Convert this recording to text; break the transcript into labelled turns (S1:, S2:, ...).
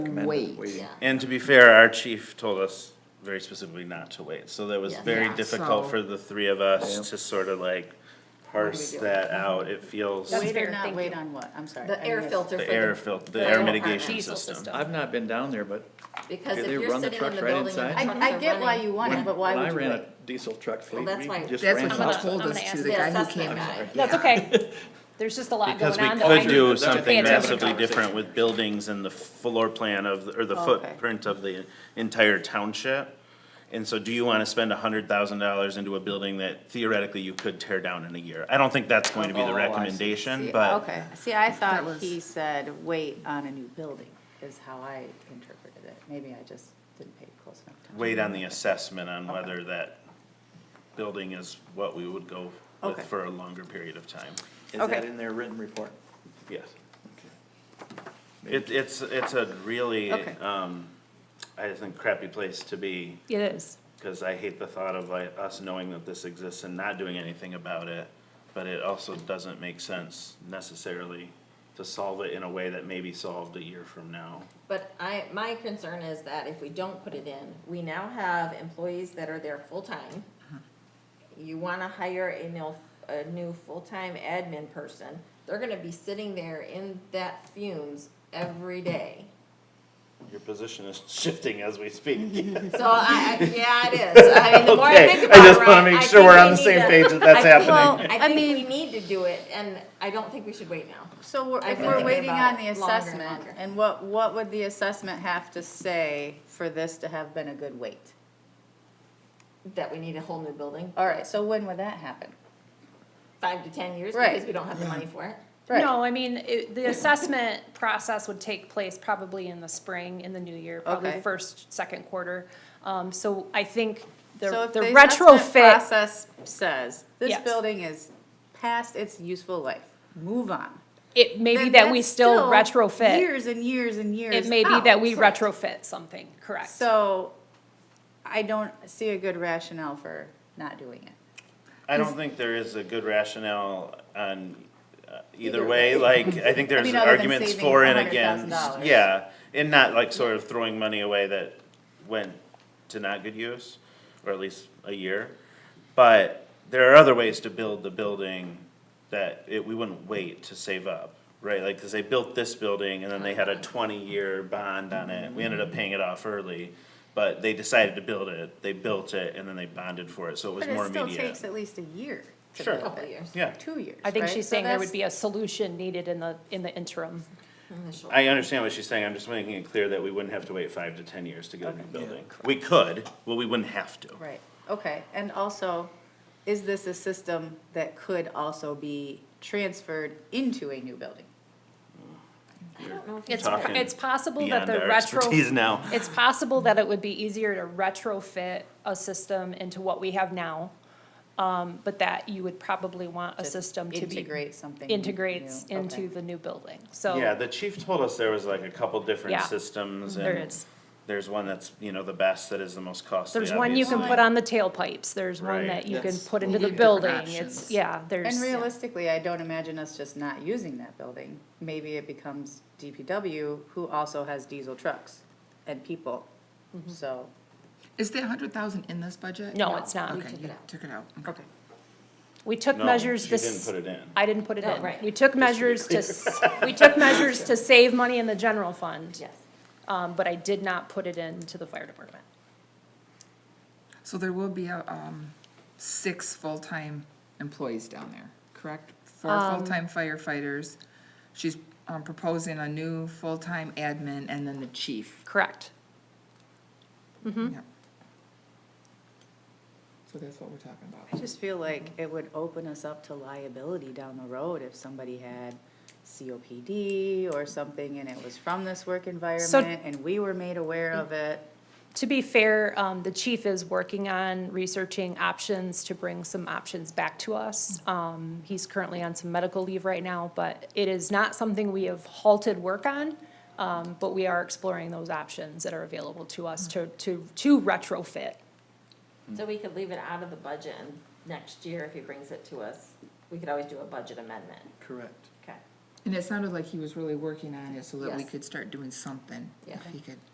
S1: recommend
S2: Wait.
S1: waiting.
S3: Yeah.
S4: And to be fair, our chief told us very specifically not to wait, so that was
S3: Yeah.
S4: very
S2: Yeah,
S4: difficult
S2: so-
S4: for the three of us
S1: Yep.
S4: to sort of like parse that out, it feels.
S5: Wait
S4: The
S5: or not wait on what? I'm sorry.
S3: The
S5: I
S3: air
S5: missed.
S3: filter for
S4: air
S3: the,
S4: fil, the
S3: the
S4: air
S3: air
S4: mitigation
S5: diesel
S4: system.
S5: system.
S1: I've not been down there, but
S3: because
S1: They
S3: if you're
S1: run the
S3: sitting
S1: truck
S3: in the
S1: right
S3: building and the
S1: inside?
S3: trucks
S5: I, I
S3: are
S5: get why
S3: running-
S5: you want it, but why
S1: when I
S5: would you
S1: ran
S5: wait?
S1: a diesel truck fleet,
S3: that's
S1: we
S3: why-
S1: just
S2: That's
S1: ran.
S2: what
S1: out.
S2: he told
S6: I'm
S2: us
S6: gonna
S2: too,
S6: ask
S2: the
S3: the
S2: guy who
S3: assessment
S2: came
S3: guy.
S2: in.
S6: That's
S2: Yeah.
S6: okay. There's just a lot
S4: Because
S6: going
S4: we
S6: on. that
S4: could
S6: I-
S4: do
S6: to pay
S4: something
S6: attention
S4: massively
S6: to.
S4: different with buildings and the floor plan of, or the
S5: Okay.
S4: footprint of the entire township. And so do you wanna spend a hundred thousand dollars into a building that theoretically you could tear down in a year? I don't think that's going to be the
S1: Oh, I see.
S4: recommendation,
S1: See,
S4: but.
S5: Okay, see, I
S2: That
S5: thought
S2: was-
S5: he said wait on a new building is how I interpreted it. Maybe I just didn't pay close enough attention.
S4: wait on the assessment on whether that building is what we would go with
S5: Okay.
S4: for a longer period of time.
S1: Is that
S5: Okay.
S1: in their written report?
S4: Yes. It, it's, it's a really,
S5: Okay.
S4: um, I just think crappy place to be,
S6: It is.
S4: cause I hate the thought of like us knowing that this exists and not doing anything about it. But it also doesn't make sense necessarily to solve it in a way that may be solved a year from now.
S3: But I, my concern is that if we don't put it in, we now have employees that are there full-time. You wanna hire a new, a new full-time admin person, they're gonna be sitting there in that fumes every day.
S4: Your position is shifting as we speak.
S3: So I, I, yeah, it is, I mean, the more I
S4: Okay,
S3: think about it.
S4: I just wanna
S3: Ryan,
S4: make
S3: I
S4: sure
S3: think
S4: we're
S3: we
S4: on the
S3: need
S4: same
S3: to-
S4: page that that's
S3: I think-
S4: happening.
S3: I think we need to do it, and I don't think we should wait now.
S5: So we're-
S3: I've
S5: if
S3: been
S5: we're
S3: thinking
S5: waiting
S3: about
S5: on the
S3: it longer and
S5: assessment,
S3: longer.
S5: and what, what would the assessment have to say for this to have been a good wait?
S3: that we need a whole new building.
S5: All right, so when would that happen?
S3: Five to ten years
S5: Right.
S3: because we don't have the money for it.
S5: Right.
S6: No, I mean, it, the assessment process would take place probably in the spring, in the new year, probably
S5: Okay.
S6: first, second quarter. Um, so I think
S5: So
S6: the,
S5: if
S6: the
S5: assessment
S6: retrofit,
S5: Process says, this
S6: Yes.
S5: building is past its useful life, move on.
S6: it may be
S5: then
S6: that we
S5: that's
S6: still retrofit.
S5: Years and years and years.
S6: It may be
S5: out.
S6: that we retrofit something, correct?
S5: So I don't see a good rationale for not doing it.
S4: I don't think there is a good rationale on uh, either way, like, I think there's
S5: mean, other than
S4: arguments
S5: saving
S4: for and against.
S5: $100,000.
S4: Yeah, and not like sort of throwing money away that went to not good use, or at least a year. But there are other ways to build the building that it, we wouldn't wait to save up, right? Like, cause they built this building and then they had a twenty-year bond on it, we ended
S5: Mm-hmm.
S4: up paying it off early. But they decided to build it, they built it, and then they bonded for it, so it was
S5: But
S4: more
S5: it
S4: immediate.
S5: still takes at least a year,
S4: Sure.
S3: Couple years.
S4: Yeah,
S5: two years,
S6: I think
S5: right?
S6: she's
S5: So
S6: saying there
S5: that's-
S6: would be a solution needed in the, in the interim.
S4: I understand what she's saying, I'm just making it clear that we wouldn't have to wait five to ten years to get a new building. We could, but we wouldn't have to.
S5: Right, okay, and also, is this a system that could also be transferred into a new building?
S3: I don't know if
S6: It's,
S4: Talking
S6: it's possible that
S4: Beyond
S6: the
S4: our
S6: retro.
S4: expertise now.
S6: It's possible that it would be easier to retrofit a system into what we have now, um, but that you would probably want a system to be.
S5: Integrate something.
S6: Integrates
S5: new, okay.
S6: into the new building, so.
S4: Yeah, the chief told us there was like a couple different
S6: Yeah.
S4: systems and.
S6: There is.
S4: There's one that's, you know, the best that is the most costly.
S6: There's one you can
S4: obviously.
S6: put on the tailpipes, there's one
S4: Right.
S6: that you can
S1: Yes.
S6: put
S1: We
S6: into the
S1: need different
S6: building,
S1: options.
S6: it's, yeah, there's.
S5: And realistically, I don't imagine us just not using that building. Maybe it becomes DPW, who also has diesel trucks and people, so,
S2: Is the hundred thousand in this budget?
S6: No, it's not. We
S2: Okay,
S3: took it
S2: you
S3: out.
S2: took it out.
S5: okay.
S6: We took
S4: No,
S6: measures
S4: she
S6: this.
S4: didn't put it in.
S6: I didn't put it
S3: Oh,
S6: in.
S3: right.
S6: We took measures to, s- we took measures to save money in the general fund.
S3: Yes.
S6: Um, but I did not put it into the fire department.
S2: So there will be a, um, six full-time employees down there, correct? Four full-time firefighters. She's, um, proposing a new full-time admin and then the chief.
S6: Correct.
S2: Yep. So that's what we're talking
S5: I
S2: about.
S5: just feel like it would open us up to liability down the road if somebody had COPD or something and it was from this work environment and we were made aware of it.
S6: To be fair, um, the chief is working on researching options to bring some options back to us. Um, he's currently on some medical leave right now, but it is not something we have halted work on. Um, but we are exploring those options that are available to us to, to, to retrofit.
S3: So we could leave it out of the budget and next year if he brings it to us, we could always do a budget amendment.
S1: Correct.
S3: Okay.
S2: And it sounded like he was really working on it so that we
S3: Yes.
S2: could start doing something.
S3: Yeah.
S2: If he could.